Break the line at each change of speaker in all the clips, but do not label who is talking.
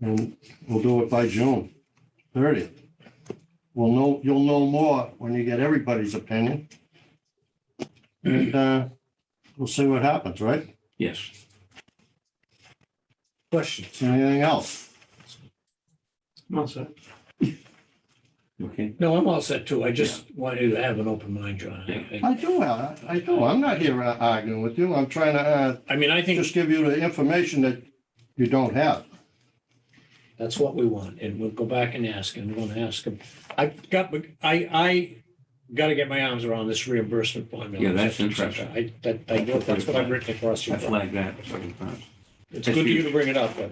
And we'll do it by June thirtieth. We'll know, you'll know more when you get everybody's opinion. And uh, we'll see what happens, right?
Yes.
Question.
Anything else?
I'm set.
Okay.
No, I'm all set too. I just wanted you to have an open mind, John. I- I-
I do, Al, I do. I'm not here uh, arguing with you. I'm trying to uh,
I mean, I think
just give you the information that you don't have.
that's what we want and we'll go back and ask and we're gonna ask them. I've got, I, I gotta get my arms around this reimbursement formula.
Yeah, that's interesting.
I, that, I, that's what I've written across
I
your
flagged that several times.
It's good of you to bring it up, but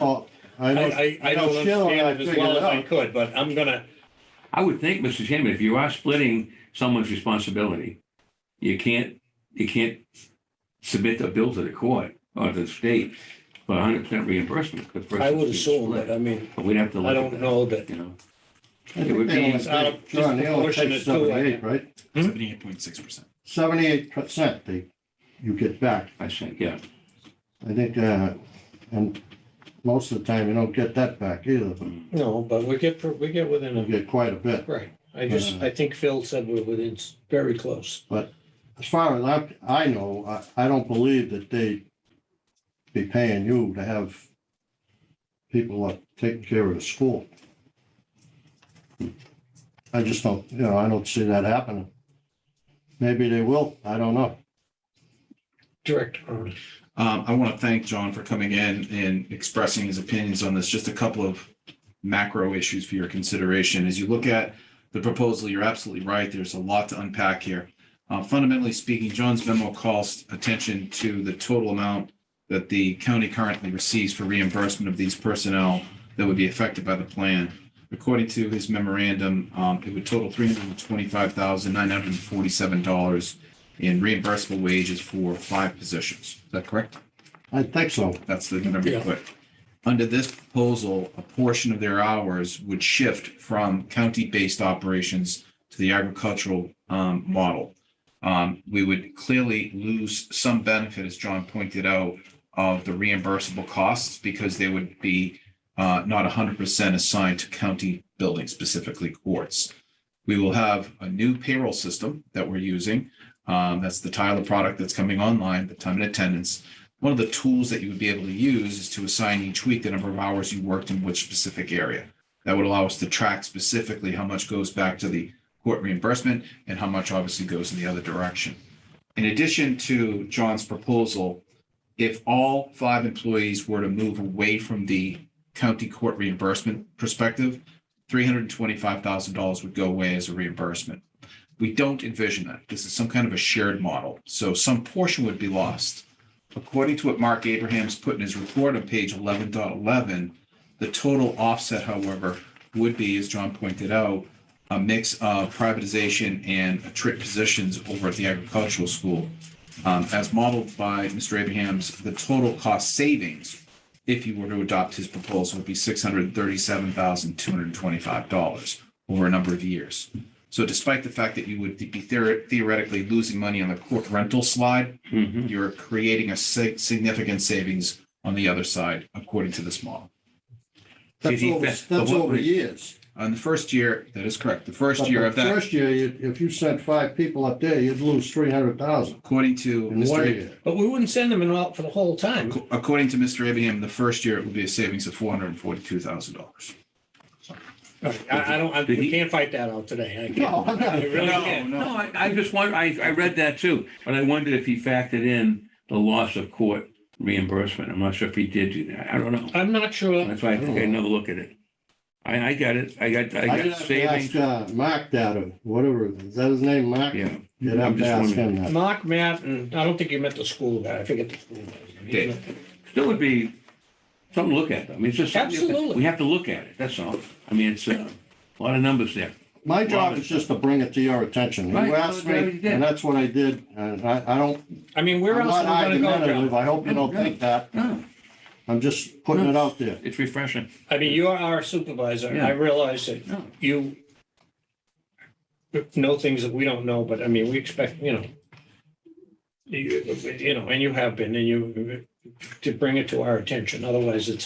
Oh, I
I,
don't,
I, I
I know
don't
Sheila and I
understand it as
figured
well
it
as I
out.
could, but I'm gonna,
I would think, Mr. Chairman, if you are splitting someone's responsibility, you can't, you can't submit a bill to the court or to the state for hundred percent reimbursement. 'cause the
I
person's
would
being
assume
split.
that, I mean,
But we'd have to
I
look
don't
at that,
know that,
you know.
I
It would
think
be-
they only
It's out of-
take- John, they only
disproportionate
take
to, like-
seventy-eight, right?
Seventy-eight point six percent.
Seventy-eight percent they, you get back.
I think, yeah.
I think, uh, and most of the time you don't get that back either, but
no, but we get, we get within
you
a,
get quite a bit.
right. I just,
Uh-huh.
I think Phil said we're within, s- very close.
As far as I, I know, I, I don't believe that they be paying you to have people up taking care of the school. I just don't, you know, I don't see that happening. Maybe they will, I don't know.
Director Cronin.
Um, I want to thank John for coming in and expressing his opinions on this. Just a couple of macro issues for your consideration. As you look at the proposal, you're absolutely right. There's a lot to unpack here. Uh, fundamentally speaking, John's memo calls attention to the total amount that the county currently receives for reimbursement of these personnel that would be affected by the plan. According to his memorandum, um, it would total three hundred and twenty-five thousand, nine hundred and forty-seven dollars in reimbursable wages for five positions. Is that correct?
I think so.
That's the number you
Yeah.
put. Under this proposal, a portion of their hours would shift from county-based operations to the agricultural um, model. Um, We would clearly lose some benefit, as John pointed out, of the reimbursable costs because they would be uh, not 100% assigned to county buildings, specifically courts. We will have a new payroll system that we're using. Um, That's the Tyler product that's coming online, the time and attendance one of the tools that you would be able to use is to assign each week the number of hours you worked in which specific area. That would allow us to track specifically how much goes back to the court reimbursement and how much obviously goes in the other direction. In addition to John's proposal, if all five employees were to move away from the county court reimbursement perspective, three hundred and twenty-five thousand dollars would go away as a reimbursement. We don't envision that. This is some kind of a shared model. So some portion would be lost. According to what Mark Abraham's put in his report on page 11.11, the total offset, however, would be, as John pointed out, a mix of privatization and trip positions over at the agricultural school. Um, as modeled by Mr. Abraham's, the total cost savings, if you were to adopt his proposal, would be six hundred thirty-seven thousand two hundred twenty-five dollars over a number of years. So despite the fact that you would be theoret- theoretically losing money on the court rental slide,
Mhm.
you're creating a sig- significant savings on the other side, according to this model.
That's
Did he
over,
fa-
that's
the what
over
rate?
years.
On the first year, that is correct. The
But
first year
the
of that,
First year, you- if you sent five people up there, you'd lose three hundred thousand
according to
in one
Mr.
year.
But we wouldn't send them in all for the whole time.
Ab- According to Mr. Abraham, the first year it would be a savings of four hundred and forty-two thousand dollars.
Right, I, I don't, I,
Did
we
he-
can't fight that out today. I
No,
can't.
I'm
I
not-
really
No,
can't.
no.
No, I, I just wonder, I, I read that too, but I wondered if he factored in the loss of court reimbursement. I'm not sure if he did do that. I don't know.
I'm not sure.
That's why I think I another look at it. I, I got it. I got, I
I did
got
have to ask,
savings.
uh, Mark that, or whatever, is that his name, Mark?
Yeah.
You'd have
I'm
to
just
ask
wondering.
him that.
Mark, Matt, and I don't think you meant the school guy. I forget the school. guy.
Dave.
Still would be something to look at. I mean, it's just. something you have to-
Absolutely.
We have to look at it. That's all. I mean, it's uh, a lot of numbers there.
My job is just to bring it to your attention. You
Right,
asked
that's what you
me,
did.
and that's what I did, and I, I don't,
I mean, where
I'm
else
not
are we gonna go, John?
argumentative, I hope you don't think that,
No,
I'm just putting it out there.
Ah, it's refreshing.
I mean, you are our supervisor. and I
Yeah.
realize that
No.
you know things that we don't know, but I mean, we expect, you know, you, you know, and you have been, and you, to bring it to our attention. Otherwise, it's